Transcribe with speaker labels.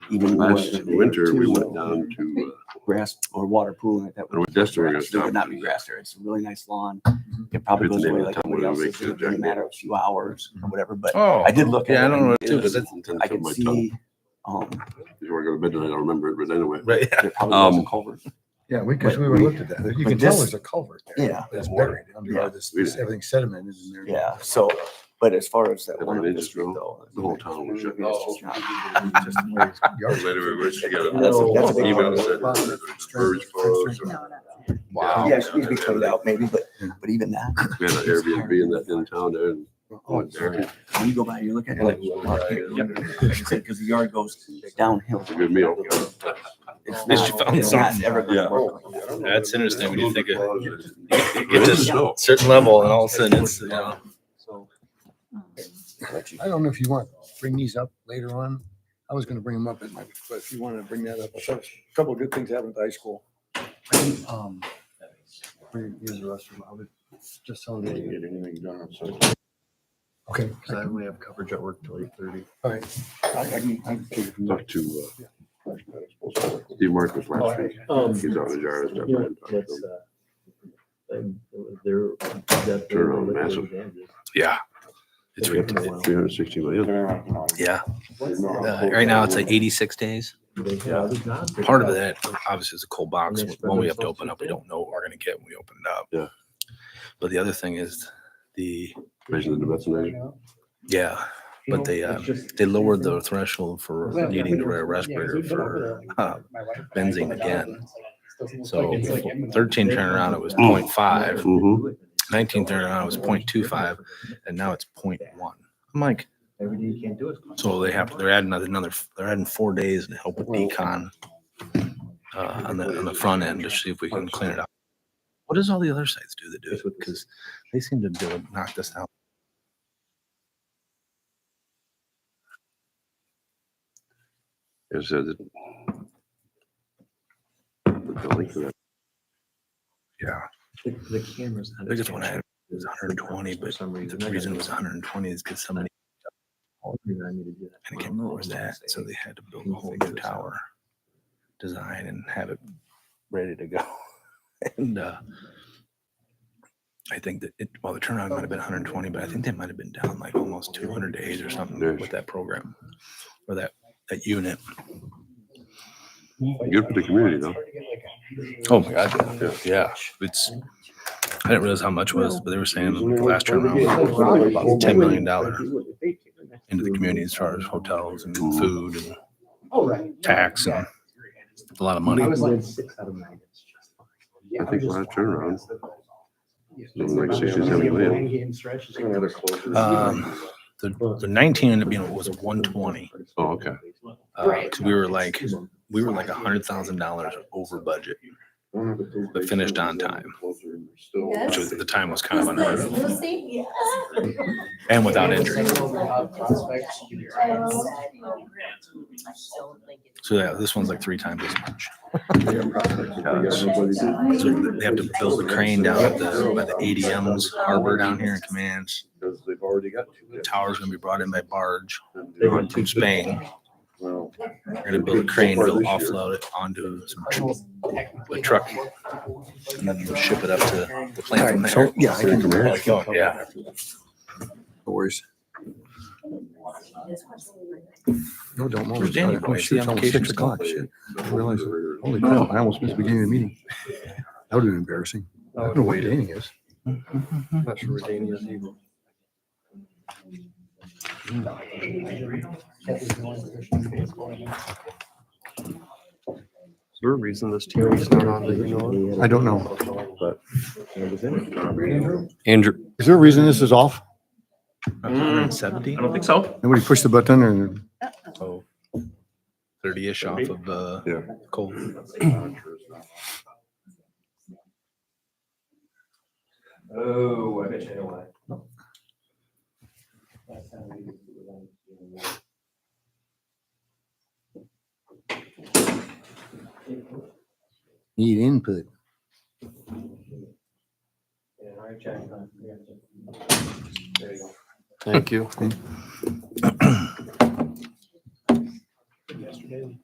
Speaker 1: even more
Speaker 2: Last
Speaker 1: than they
Speaker 2: winter, we
Speaker 1: two.
Speaker 2: went down to, uh,
Speaker 1: grass or water pooling it that
Speaker 2: There
Speaker 1: would.
Speaker 2: was just a regular
Speaker 1: There would not be
Speaker 2: stop.
Speaker 1: grass there. It's a really nice lawn. It probably
Speaker 2: Forget
Speaker 1: goes
Speaker 2: the name
Speaker 1: away
Speaker 2: of
Speaker 1: like
Speaker 2: the town
Speaker 1: everybody
Speaker 2: where
Speaker 1: else.
Speaker 2: they
Speaker 1: It's
Speaker 2: make the
Speaker 1: only a
Speaker 2: jack-
Speaker 1: matter of a few hours or whatever, but
Speaker 3: Oh,
Speaker 1: Mm-hmm. I did look at it.
Speaker 3: Yeah, I don't know.
Speaker 1: and
Speaker 3: what it
Speaker 1: it was-
Speaker 3: is.
Speaker 1: I could see, um,
Speaker 2: Before I go to bed tonight, I'll remember it, but anyway.
Speaker 3: Right.
Speaker 1: there probably was a
Speaker 2: Um,
Speaker 1: culvert.
Speaker 4: Yeah, we, because
Speaker 1: But
Speaker 4: we were
Speaker 1: we-
Speaker 4: looked at that. You
Speaker 1: but
Speaker 4: can tell
Speaker 1: this-
Speaker 4: there's a culvert there.
Speaker 1: Yeah.
Speaker 4: That's buried under
Speaker 1: Yeah.
Speaker 4: all this, this- everything sediment is in there.
Speaker 1: Yeah, so, but as far as that
Speaker 2: If
Speaker 1: one
Speaker 2: I
Speaker 1: of
Speaker 2: did
Speaker 1: this
Speaker 2: just go,
Speaker 1: though.
Speaker 2: the whole town was shut
Speaker 1: it's just not-
Speaker 4: Just the way it's yard- Oh,
Speaker 2: Later, we wish to get a-
Speaker 1: That's a- that's a big
Speaker 2: email
Speaker 1: one.
Speaker 2: said that it's birds follows or-
Speaker 5: No, no.
Speaker 3: Wow.
Speaker 1: Yeah, it should be cleaned out maybe, but, but even that,
Speaker 2: We had an Airbnb in that, in town there and
Speaker 4: oh,
Speaker 3: Oh,
Speaker 2: I went there. and
Speaker 1: when you go by, you're looking at it, you're like, oh, yep, like I said, cause the yard goes downhill.
Speaker 2: It's a good meal.
Speaker 1: It's
Speaker 3: least you
Speaker 1: not-
Speaker 3: found
Speaker 1: it's not
Speaker 3: something.
Speaker 1: ever gonna
Speaker 2: Yeah.
Speaker 4: oh,
Speaker 1: work like that.
Speaker 3: That's interesting when you think of-
Speaker 2: of.
Speaker 3: Get to a certain level and all of a sudden it's, you know,
Speaker 1: So.
Speaker 3: Um,
Speaker 4: oh. I don't know if you want, to bring these up later on. I was gonna bring them up, at my- but if you wanted to bring that up, a couple of good things happened at the high school. Um, bring- Use the restroom. I would just tell them. Okay.
Speaker 6: Because I only have coverage at work till eight thirty.
Speaker 4: All right. I, I can, I can take it from there.
Speaker 2: Talked to, uh, Steve Marcus last
Speaker 3: Oh,
Speaker 2: week.
Speaker 6: Um,
Speaker 2: He's out in the jar and stuff.
Speaker 6: you know, that's, uh, um, They're. that-
Speaker 2: Turn on massive.
Speaker 3: yeah,
Speaker 6: It's
Speaker 2: Three hundred sixty million.
Speaker 3: yeah. Uh, right now it's like eighty-six days. Part of that obviously is a cold box. When we have to open up, we don't know what we're gonna get when we open it up.
Speaker 2: Yeah.
Speaker 3: But the other thing is the,
Speaker 2: Raising the Bethany.
Speaker 3: yeah, but they, uh, they lowered the threshold for needing to wear a respirator for uh, benzene again. So thirteen turnaround, it was point five.
Speaker 2: Mm-hmm.
Speaker 3: Nineteen turnaround, it was point two five, and now it's point one. I'm like,
Speaker 6: Every day you can't do it.
Speaker 3: So they have, they're adding another- another, they're adding four days to help with
Speaker 4: Well-
Speaker 3: decon. Uh, on the, on the front end to see if we can clean it up. What does all the other sites do that do it? Because they seem to do it, knock this out.
Speaker 2: It said that. The building for that
Speaker 3: Yeah.
Speaker 6: The the camera's. not
Speaker 3: Biggest one I
Speaker 6: attached.
Speaker 3: had was hundred and twenty,
Speaker 6: For
Speaker 3: but
Speaker 6: some reason,
Speaker 3: the
Speaker 6: I
Speaker 3: reason it
Speaker 6: gotta-
Speaker 3: was hundred and twenty is because somebody,
Speaker 6: All the reason I need to do that.
Speaker 3: and I can't remember was that, so they had to build a whole new tower. Design and have it ready to go. And, uh, I think that it, well, the turnaround might have been hundred and twenty, but I think they might have been down like almost two hundred days or something
Speaker 2: There's-
Speaker 3: with that program. Or that, that unit.
Speaker 2: Good for the community though.
Speaker 3: Oh my God. Yeah, it's, I didn't realize how much was, but they were saying the last turnaround was about ten million dollar into the community as far as hotels and
Speaker 2: Mhm.
Speaker 3: food and
Speaker 6: Oh, right.
Speaker 3: tax and a lot of money.
Speaker 6: I was like six out of nine. It's just fine.
Speaker 2: I think last turnaround.
Speaker 6: Yeah.
Speaker 2: Something like 60, 70 million.
Speaker 6: Nine game stretch is like-
Speaker 3: Um, the, the nineteen ended up being, was one twenty.
Speaker 2: Oh, okay.
Speaker 3: Uh, Cause we were like, we were like a hundred thousand dollars over budget, but finished on time, which was, at the time was kind of unheard of
Speaker 5: Lucy?
Speaker 3: and without injury. So yeah, this one's like three times as much. So they have to build a crane down at the, by the ADM's harbor down here in Commands.
Speaker 2: Because they've already got
Speaker 3: The
Speaker 2: two.
Speaker 3: tower's gonna be brought in by barge
Speaker 2: They
Speaker 3: from Spain.
Speaker 2: Well,
Speaker 3: They're gonna build a crane, they'll offload it onto some tr- a truck and then ship it up to the plant from
Speaker 4: Alright, so,
Speaker 3: there.
Speaker 4: yeah, I can.
Speaker 3: Oh, God, Yeah.
Speaker 4: No worries. No, don't
Speaker 3: Where's
Speaker 4: worry.
Speaker 3: Daniel?
Speaker 4: Oh,
Speaker 3: I
Speaker 4: shoot,
Speaker 3: see
Speaker 4: it's almost
Speaker 3: applications
Speaker 4: six o'clock.
Speaker 3: come.
Speaker 4: Shit. I didn't realize it. Holy crap, I almost missed the beginning of the meeting. That would have been embarrassing. I don't know where Danny is.
Speaker 6: I'm not sure where Danny is either.
Speaker 7: Is there a reason this TV is not on? Do you know?
Speaker 4: I don't know.
Speaker 7: Andrew.
Speaker 4: Is there a reason this is off?
Speaker 3: Hundred and seventy,
Speaker 7: I don't think so.
Speaker 4: Nobody pushed the button or?
Speaker 3: so thirty-ish off of, uh,
Speaker 2: Yeah.
Speaker 3: coal.
Speaker 6: Oh, I bet you know why.
Speaker 4: Need input.
Speaker 7: Thank you.